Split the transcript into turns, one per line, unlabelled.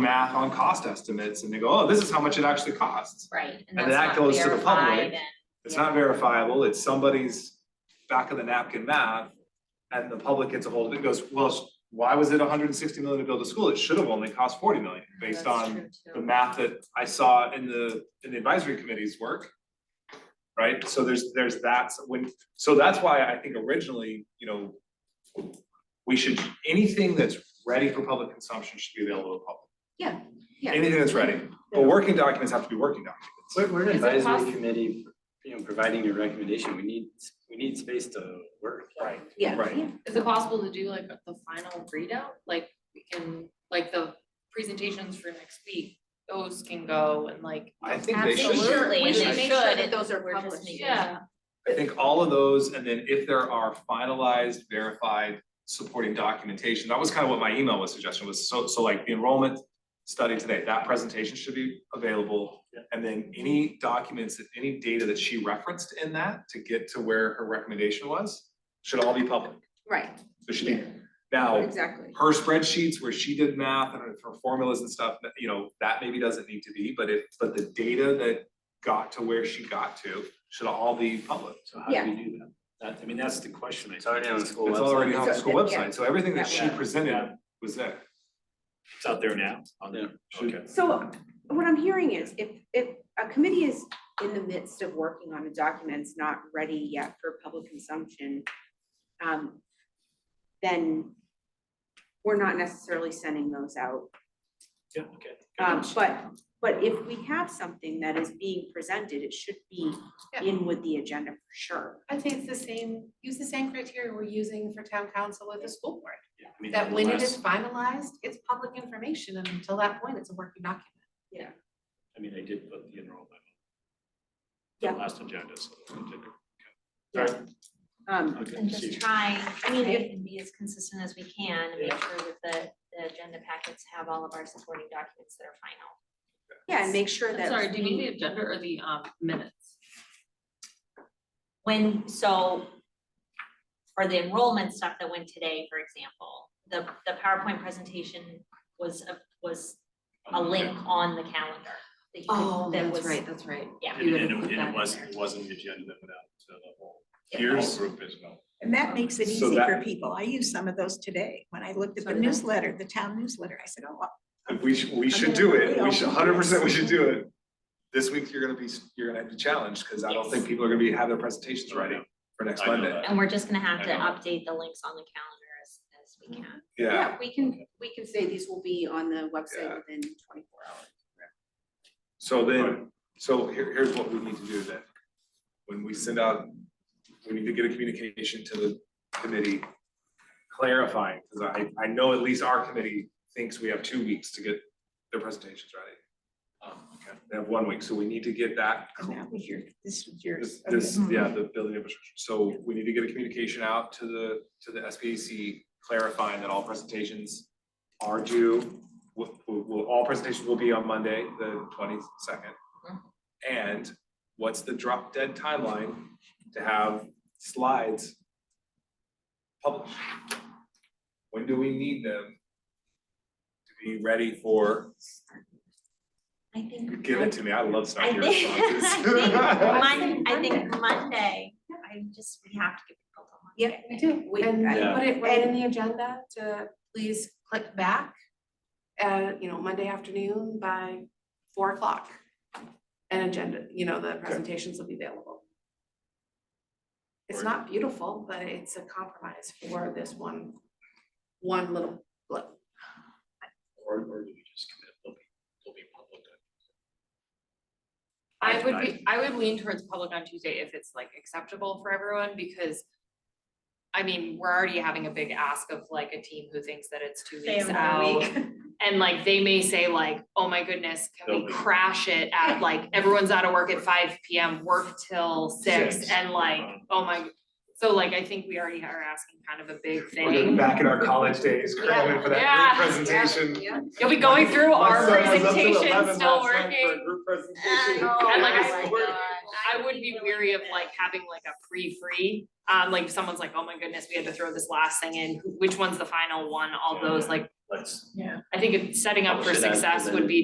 math on cost estimates and they go, oh, this is how much it actually costs.
Right,
And
and that's
that
not
goes to the
verified
public. It's not verifiable, it's somebody's back of the napkin math. And the public gets a hold of it, goes, well, sh- why was it hundred and sixty million to build a school? It should have only cost forty million, based on the math that I saw in the, in the advisory committee's work. Right, so there's, there's that, so when, so that's why I think originally, you know. We should, anything that's ready for public consumption should be available to the public.
Yeah, yeah.
Anything that's ready, but working documents have to be working documents.
We're, we're an
Is it
advisory
possible-
committee, you know, providing a recommendation, we need, we need space to work.
Right.
Yeah.
Right.
Is it possible to do like the final readout, like we can, like the presentations for next week, those can go and like.
I think they should.
Absolutely,
We
and
should
they
make sure
should,
that those are
we're just
published.
making- Yeah,
I think all of those, and then if there are finalized, verified, supporting documentation, that was kind of what my email was suggestion was, so, so like the enrollment study today, that presentation should be available. And then any documents, any data that she referenced in that to get to where her recommendation was, should all be public.
Right,
So she, now,
exactly.
her spreadsheets where she did math and her formulas and stuff, that, you know, that maybe doesn't need to be, but it, but the data that got to where she got to should all be public.
So how do we do that? That, I mean, that's the question. It's already on the school
It's already
website.
on the school
So, yeah.
website, so everything that she
Yeah.
presented was there.
It's out there now. on the- Okay.
So what I'm hearing is if, if a committee is in the midst of working on a document, it's not ready yet for public consumption, um, then we're not necessarily sending those out.
Yeah, okay.
Um, but, but if we have something that is being presented, it should be
Yeah.
in with the agenda for sure.
I'd say it's the same, use the same criteria we're using for town council with the school board.
Yeah, I mean,
That when it is
unless-
finalized, it's public information, and until that point, it's a working document.
I mean, I did put the enrollment. on the
Yeah.
Last agenda, so. I did-
Um,
okay,
And
see.
just try, I mean,
Okay.
if and be as consistent as we can and make sure that the, the agenda packets have all of our supporting documents that are final.
yeah, and make sure
I'm
that.
sorry, do you need the agenda or the um minutes?
When, so for the enrollment stuff that went today, for example, the, the PowerPoint presentation was, a- was a link on the calendar. that you could- that was-
Oh, that's right.
Yeah.
You
And
would
and
have
it
put
and
that
it
in
wasn't,
there.
it wasn't the agenda without, so the whole,
Yeah.
the whole
Here's-
group is no.
And that makes it
So
easy
that-
for people. I used some of those today. When I looked at
So
the
did I.
newsletter, the town newsletter, I said, oh,
We should, we should
gonna
do
put
it,
it
we
on
should,
the
hundred percent, we should
list.
do it. This week, you're gonna be, you're gonna have to challenge, cause I don't think people are gonna be, have their presentations ready for next
I know
Monday,
that.
And we're just gonna have
I
to
know.
update the links on the calendar as, as we
Mm-hmm.
can.
yeah.
Yeah, we can, we can say these will be on the website
Yeah.
within twenty-four hours.
So then, so here, here's what we need to do then. When we send out, we need to get a communication to the committee clarifying, because I, I know at least our committee thinks we have two weeks to get their presentations ready.
Um, okay.
They have one week, so we need to get that
Oh.
and that was your, this was your.
This,
okay.
this,
Mm-hmm.
yeah, the building infrastructure, so we need to get a communication out to the, to the SPAC clarifying that all presentations are due. Will, will- will- all presentations will be on Monday, the twenty-second.
Mm-hmm.
And what's the drop dead timeline to have slides published? When do we need them to be ready for,
I think.
give
I-
it to me, I love
I
snarky
think,
responses.
I think, Mon- I
Monday.
think Monday, I just, we have to give people till Monday.
Yep.
We do,
We-
and
Yeah.
put it right in the agenda to please click back, uh, you know, Monday afternoon by four o'clock. And agenda, you know, the presentations will be available. It's not beautiful, but it's a compromise for this one, one little blip.
Or, or do we just commit, they'll be, they'll be public.
I would
Right.
be, I would lean towards public on Tuesday if it's like acceptable for everyone, because. I mean, we're already having a big ask of like a team who thinks that it's two weeks out. And like, they may say like, oh my goodness, can
They'll
we
be-
crash it at like, everyone's out of work at five P M, work till six,
Six.
and like,
Uh-huh.
oh my. So like, I think we already are asking kind of a big
We're just
thing.
Back in our college days, cramming for
Yeah.
that group presentation.
You'll be going through our
My son was up till
presentation,
11
still
last night for a
working.
group presentation.
And like,
Oh
I
my God.
I would be weary of like having like a pre-free, um, like if someone's like, oh my goodness, we had to throw this last thing in, who- which one's the final one, all those, like,
let's
I think if setting up for
Publish it as-
success
as
would
an-
be